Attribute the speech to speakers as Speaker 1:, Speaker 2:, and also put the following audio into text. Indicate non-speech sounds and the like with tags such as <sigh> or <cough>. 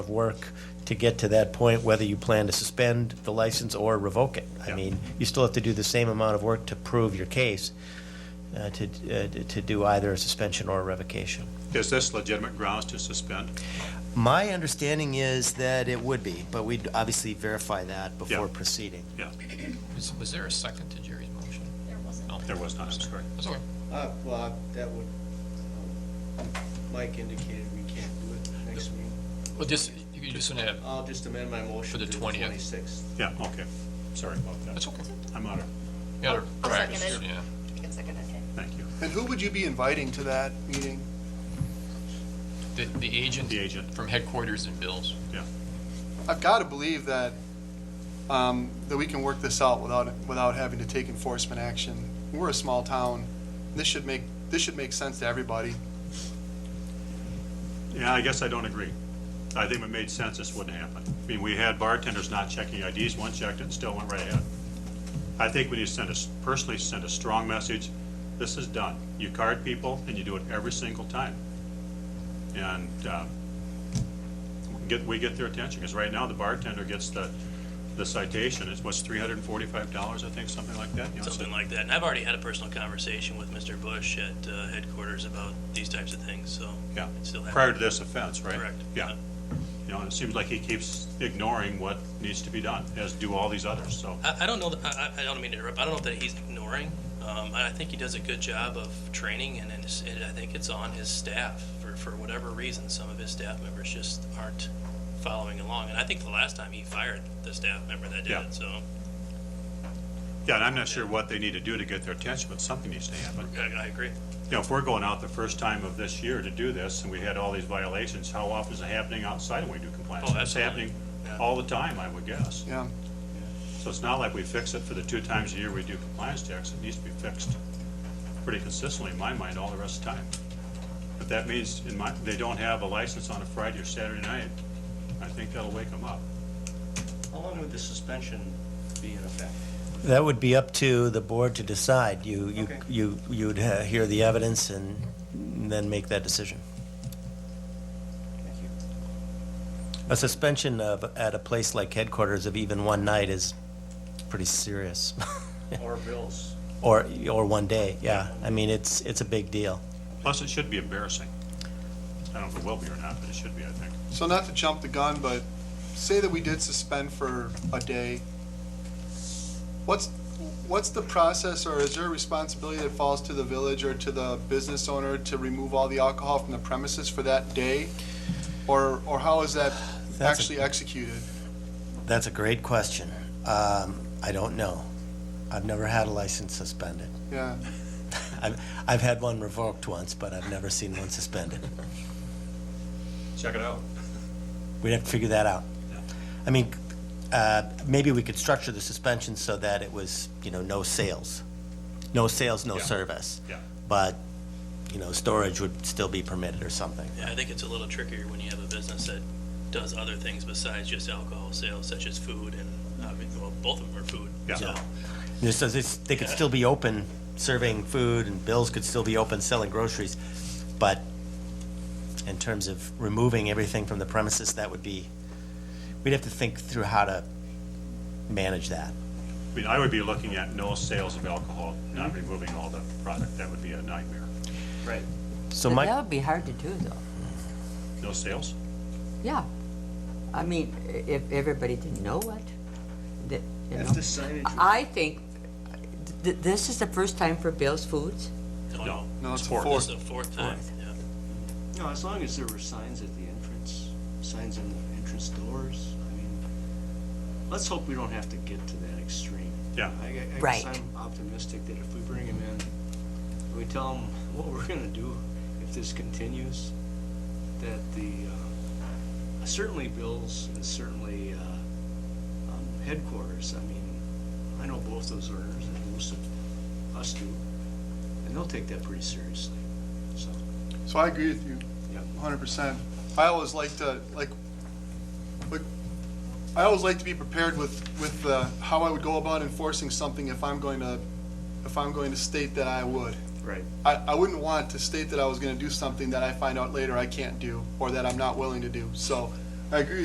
Speaker 1: of work to get to that point, whether you plan to suspend the license or revoke it. I mean, you still have to do the same amount of work to prove your case, uh, to, uh, to do either a suspension or a revocation.
Speaker 2: Is this legitimate grounds to suspend?
Speaker 1: My understanding is that it would be, but we'd obviously verify that before
Speaker 2: Yeah.
Speaker 1: proceeding.
Speaker 3: Was, was there a second to Jerry's motion?
Speaker 4: There wasn't.
Speaker 3: No.
Speaker 2: There was not, I'm sorry.
Speaker 3: That's okay.
Speaker 5: Uh, well, I- that would, um, Mike indicated we can't do it next meeting.
Speaker 3: Well, just, you could just want to,
Speaker 5: I'll just amend my motion
Speaker 3: For the
Speaker 5: to the
Speaker 3: 20th.
Speaker 5: twenty-sixth.
Speaker 2: Yeah, okay. Sorry about that.
Speaker 3: that's okay.
Speaker 2: I'm out of,
Speaker 3: You gotta
Speaker 4: I'll second
Speaker 3: practice,
Speaker 4: it.
Speaker 3: yeah.
Speaker 4: It's like an okay.
Speaker 2: thank you.
Speaker 6: And who would you be inviting to that meeting?
Speaker 3: The, the agent.
Speaker 2: The agent.
Speaker 3: From headquarters and bills.
Speaker 6: I've got to believe that, um, that we can work this out without, without having to take enforcement action. We're a small town. This should make, this should make sense to everybody.
Speaker 2: Yeah, I guess I don't agree. I think if it made sense, this wouldn't happen. I mean, we had bartenders not checking IDs, one checked it, and still went right ahead. I think we need to send us, personally send a strong message, this is done. You card people, and you do it every single time. And, um, we get, we get their attention, because right now, the bartender gets the, the citation, it's what's, three hundred and forty-five dollars, I think, something like that? You know, so-
Speaker 7: Something like that. And I've already had a personal conversation with Mr. Bush at uh, headquarters about these types of things, so.
Speaker 2: Yeah,
Speaker 7: It's still happening.
Speaker 2: prior to this offense, right?
Speaker 7: Correct.
Speaker 2: Yeah. You know, and it seems like he keeps ignoring what needs to be done, as do all these others, so.
Speaker 7: I, I don't know, that- I, I I don't mean to interrupt, I don't know that he's ignoring. Um, I I think he does a good job of training and, and it's- and I think it's on his staff for, for whatever reason. Some of his staff members just aren't following along. And I think the last time he fired the staff member that did
Speaker 2: Yeah.
Speaker 7: it, so
Speaker 2: Yeah, and I'm not sure what they need to do to get their attention, but something needs to happen.
Speaker 7: I, I agree.
Speaker 2: You know, if we're going out the first time of this year to do this, and we had all these violations, how often is it happening outside when we do compliance?
Speaker 7: Oh,
Speaker 2: It's
Speaker 7: absolutely.
Speaker 2: happening
Speaker 7: Yeah.
Speaker 2: all the time, I would guess.
Speaker 6: Yeah.
Speaker 2: So it's not like we fix it for the two times a year we do compliance checks, it needs to be fixed pretty consistently, in my mind, all the rest of the time. But that means, in my, they don't have a license on a Friday or Saturday night, I think that'll wake them up.
Speaker 5: How long would the suspension be
Speaker 2: <laughs>
Speaker 5: in effect?
Speaker 1: That would be up to the board to decide. You, you,
Speaker 5: Okay.
Speaker 1: you, you'd uh, hear the evidence and then make that decision.
Speaker 5: Thank you.
Speaker 1: A suspension of, at a place like headquarters of even one night is pretty serious. <laughs>
Speaker 5: Or bills?
Speaker 1: Or, or one day, yeah. I mean, it's, it's a big deal.
Speaker 2: Plus, it should be embarrassing. I don't know if it will be or not, but it should be, I think.
Speaker 6: So not to jump the gun, but say that we did suspend for a day. What's, what's the process or is there a responsibility that falls to the village or to the business owner to remove all the alcohol from the premises for that day? Or, or how is that
Speaker 1: That's a-
Speaker 6: actually executed?
Speaker 1: That's a great question. Um, I don't know. I've never had a license suspended. <laughs>
Speaker 6: Yeah.
Speaker 1: I've, I've had one revoked once, but I've never seen one suspended.
Speaker 2: Check it out.
Speaker 1: We'd have to figure that out. I mean, uh, maybe we could structure the suspension so that it was, you know, no sales. No sales, no
Speaker 2: Yeah.
Speaker 1: service.
Speaker 2: Yeah.
Speaker 1: But, you know, storage would still be permitted or something.
Speaker 7: Yeah, I think it's a little trickier when you have a business that does other things besides just alcohol sales, such as food and, uh, well, both of them are food.
Speaker 2: Yeah.
Speaker 7: So,
Speaker 1: This does, this, they could still be open serving food and bills could still be open selling groceries. But in terms of removing everything from the premises, that would be, we'd have to think through how to manage that.
Speaker 2: I mean, I would be looking at no sales of alcohol, not removing all the product, that would be a nightmare.
Speaker 5: Right.
Speaker 1: So
Speaker 8: But
Speaker 1: my,
Speaker 8: That would be hard to do, though.
Speaker 2: No sales?
Speaker 8: Yeah. I mean, i- if everybody didn't know it, that, you know.
Speaker 5: If the signage, was-
Speaker 8: I think th- th- this is the first time for Bill's Foods.
Speaker 7: no,
Speaker 2: No.
Speaker 7: no,
Speaker 6: No, it's a
Speaker 2: Four.
Speaker 7: this
Speaker 6: fourth.
Speaker 7: is the fourth time,
Speaker 8: Fourth.
Speaker 7: yeah.
Speaker 5: no, as long as there were signs at the entrance, signs on the entrance doors, I mean, let's hope we don't have to get to that extreme.
Speaker 2: Yeah.
Speaker 5: I, I guess
Speaker 8: Right.
Speaker 5: I'm optimistic that if we bring him in, we tell him what we're gonna do if this continues, that the, uh, certainly Bill's and certainly, uh, um, headquarters, I mean, I know both those owners and most of us do, and they'll take that pretty seriously, so,
Speaker 6: So I agree with you.
Speaker 5: yeah.
Speaker 6: hundred percent. I always like to like, like, I always like to be prepared with with uh, how I would go about enforcing something if I'm going to if I'm going to state that I would.
Speaker 5: Right.
Speaker 6: I, I wouldn't want to state that I was going to do something that I find out later I can't do or that I'm not willing to do. So I agree